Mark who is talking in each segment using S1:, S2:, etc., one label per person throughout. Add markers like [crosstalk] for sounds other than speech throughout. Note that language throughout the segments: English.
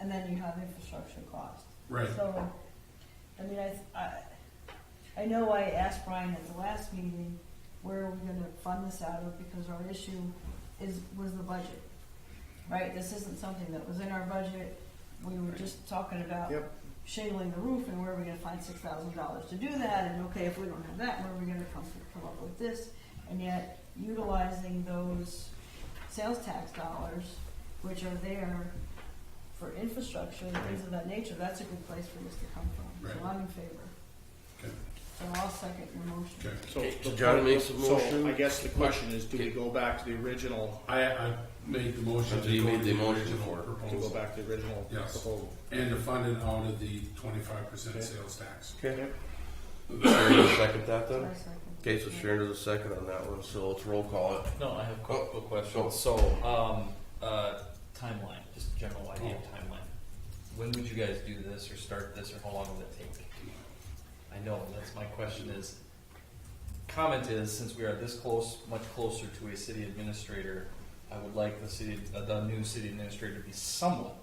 S1: and then you have infrastructure costs.
S2: Right.
S1: So, I mean, I, I, I know I asked Brian at the last meeting, where are we gonna fund this out of, because our issue is, was the budget. Right, this isn't something that was in our budget, we were just talking about
S3: Yep.
S1: shingling the roof, and where are we gonna find six thousand dollars to do that, and okay, if we don't have that, where are we gonna come, come up with this? And yet, utilizing those sales tax dollars, which are there for infrastructure and things of that nature, that's a good place for this to come from. So
S2: Right.
S1: I'm in favor.
S2: Okay.
S1: So I'll second your motion.
S3: So
S4: Okay, so
S3: the
S4: John
S3: point-
S4: makes a
S3: so
S4: motion.
S3: I guess the question is, do we
S4: Okay.
S3: go back to the original,
S2: I, I made the motion.
S4: So Oh, you
S2: go
S4: made
S2: to
S4: the motion
S2: original
S4: for it.
S3: to go
S2: Proposal,
S3: back to the original
S2: Yes.
S3: proposal?
S2: and to fund it out of the twenty-five
S3: Okay.
S2: percent sales tax.
S4: Okay. Sharon will second that
S1: So
S4: then?
S1: I second.
S4: Okay, so Sharon does a second on that one, so let's roll call it.
S5: No, I have a quick,
S4: Oh,
S5: quick
S4: go.
S5: question. So, um, uh, timeline, just a general idea of
S3: Oh.
S5: timeline. When would you guys do this or start this or how long will it take? I know, that's my question is, comment is, since we are this close, much closer to a city administrator, I would like the city, uh, the new city administrator to be somewhat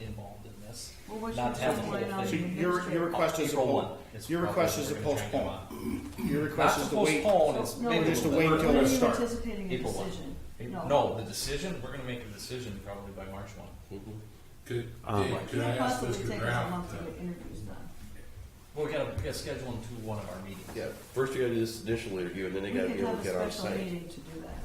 S5: involved in this.
S1: Well, what's your
S5: Not have the whole
S1: timeline on
S5: thing.
S3: So
S1: the
S3: your, your
S1: administrator?
S3: request is to
S5: April one.
S3: postpone,
S5: is
S3: your
S5: probably
S3: request
S5: what
S3: is to
S5: we're gonna try and
S3: postpone.
S5: get on.
S3: your
S5: Not
S3: request
S5: to
S3: is to wait.
S5: postpone, it's
S1: No,
S5: maybe a
S3: just to wait
S5: little bit.
S3: till
S1: We're
S3: we
S1: not
S3: start.
S1: anticipating a
S5: April one.
S1: decision. No.
S5: No, the decision, we're gonna make a decision probably by March one.
S4: Mhm.
S2: Could,
S4: Um,
S2: Dave, could
S1: It
S2: I
S1: would
S2: ask
S1: possibly
S2: Mr.
S1: take us a month
S2: Graff?
S1: to
S2: to-
S1: get interviews done.
S5: Well, we gotta, we gotta schedule them to one of our meetings.
S4: Yeah, first you gotta do this initial interview and then
S1: We
S4: they gotta
S1: could
S4: be able
S1: have
S4: to
S1: a
S4: get on
S1: special
S4: site.
S1: meeting to do that.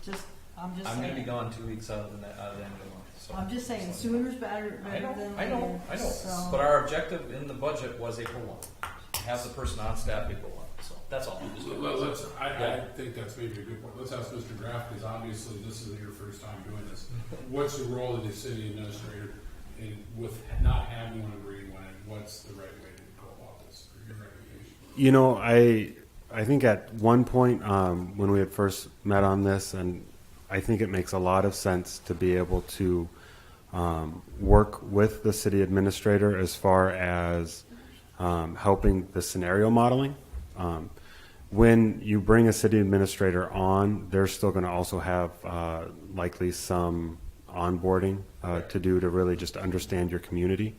S1: Just, I'm just
S5: I'm gonna be
S1: saying,
S5: gone two weeks out of the, ne- out of the end of the month, so.
S1: I'm just saying sooner's better,
S5: I
S1: better
S5: know,
S1: than later.
S5: I know, I know,
S1: So-
S5: but our objective in the budget was April one, have the person on staff April one, so, that's all.
S2: Let- Let's, I, I
S5: Yeah.
S2: think that's maybe a good point. Let's ask Mr. Graff, because obviously this is your first time doing this. What's the role of the city administrator in, with not having one agreeing on it? What's the right way to go about this? for your recommendation?
S6: You know, I I think at one point um, when we had first met on this, and I think it makes a lot of sense to be able to um, work with the city administrator as far as um, helping the scenario modeling. Um, when you bring a city administrator on, they're still going to also have uh, likely some onboarding uh, to do to really just understand your community.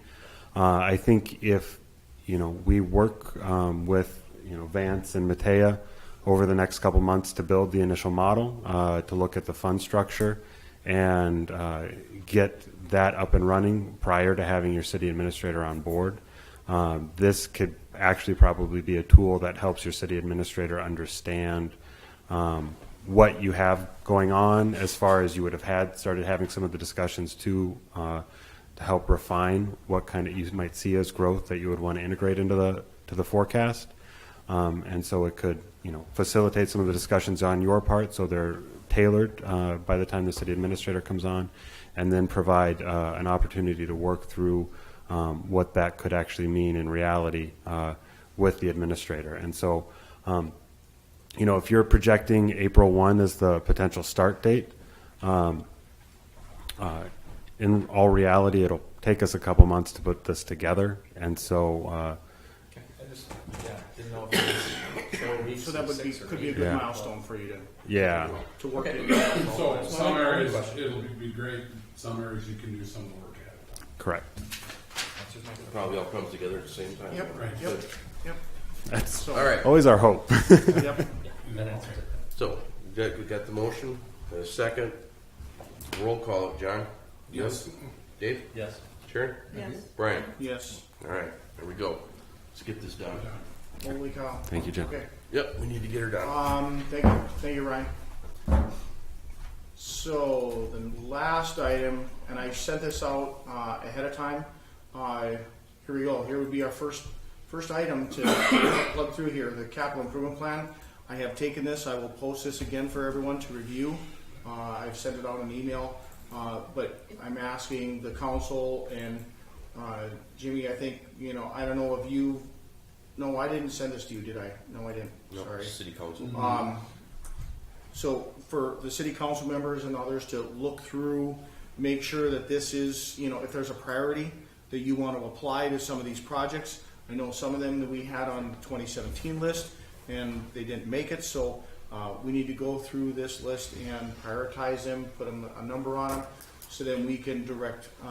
S6: Uh, I think if you know we work um, with you know Vance and Matea over the next couple months to build the initial model uh, to look at the fund structure and uh, get that up and running prior to having your city administrator on board. Um, this could actually probably be a tool that helps your city administrator understand um, what you have going on as far as you would have had started having some of the discussions to uh, to help refine what kind of you might see as growth that you would want to integrate into the to the forecast. Um, and so it could, you know, facilitate some of the discussions on your part so they're tailored uh, by the time the city administrator comes on, and then provide uh, an opportunity to work through um, what that could actually mean in reality uh, with the administrator. And so, um, you know, if you're projecting April 1 as the potential start date, um, uh, in all reality, it'll take us a couple months to put this together. And so, uh,
S5: Okay, I just, yeah, didn't know if
S3: [coughs]
S5: it was four weeks
S3: So that
S5: or
S3: would be,
S5: six or
S3: could be a
S5: eight.
S3: good
S6: Yeah.
S3: milestone for you to,
S6: yeah.
S3: to work
S5: Okay.
S3: it.
S2: So
S5: That's
S2: some
S5: my
S2: areas,
S5: question.
S2: it'll be- be great, some areas you can do some of the work ahead of time.
S6: Correct.
S5: That's just my question.
S4: Probably all comes together at the same time.
S3: Yep,
S2: Right.
S3: yep, yep.
S6: That's
S4: All right,
S6: always our hope.
S3: Yep.
S2: You
S5: That
S2: know,
S5: answers it.
S4: so we got- we got the motion, got a second. Roll call it, John.
S2: Yes,
S4: Dave?
S5: Yes,
S4: Sharon?
S1: Yes.
S4: Brian?
S3: Yes.
S4: All right, there we go. Let's get this done.
S3: Holy cow.
S6: Thank you, Jim.
S3: Okay.
S4: Yep, we need to get her done.
S3: Um, thank you, thank you, Ryan. So the last item, and I sent this out uh, ahead of time. Uh, here we go. Here would be our first first item to plug through here. The capital improvement plan. I have taken this. I will post this again for everyone to review. Uh, I've sent it out an email, uh, but I'm asking the council and uh, Jimmy. I think you know. I don't know if you. No, I didn't send this to you, did I? No, I didn't.
S4: No,
S3: Sorry.
S4: City council.
S3: Um, so for the city council members and others to look through, make sure that this is, you know, if there's a priority that you want to apply to some of these projects. I know some of them that we had on the twenty seventeen list and they didn't make it, so, uh, we need to go through this list and prioritize them, put them a number on them, so then we can direct, uh,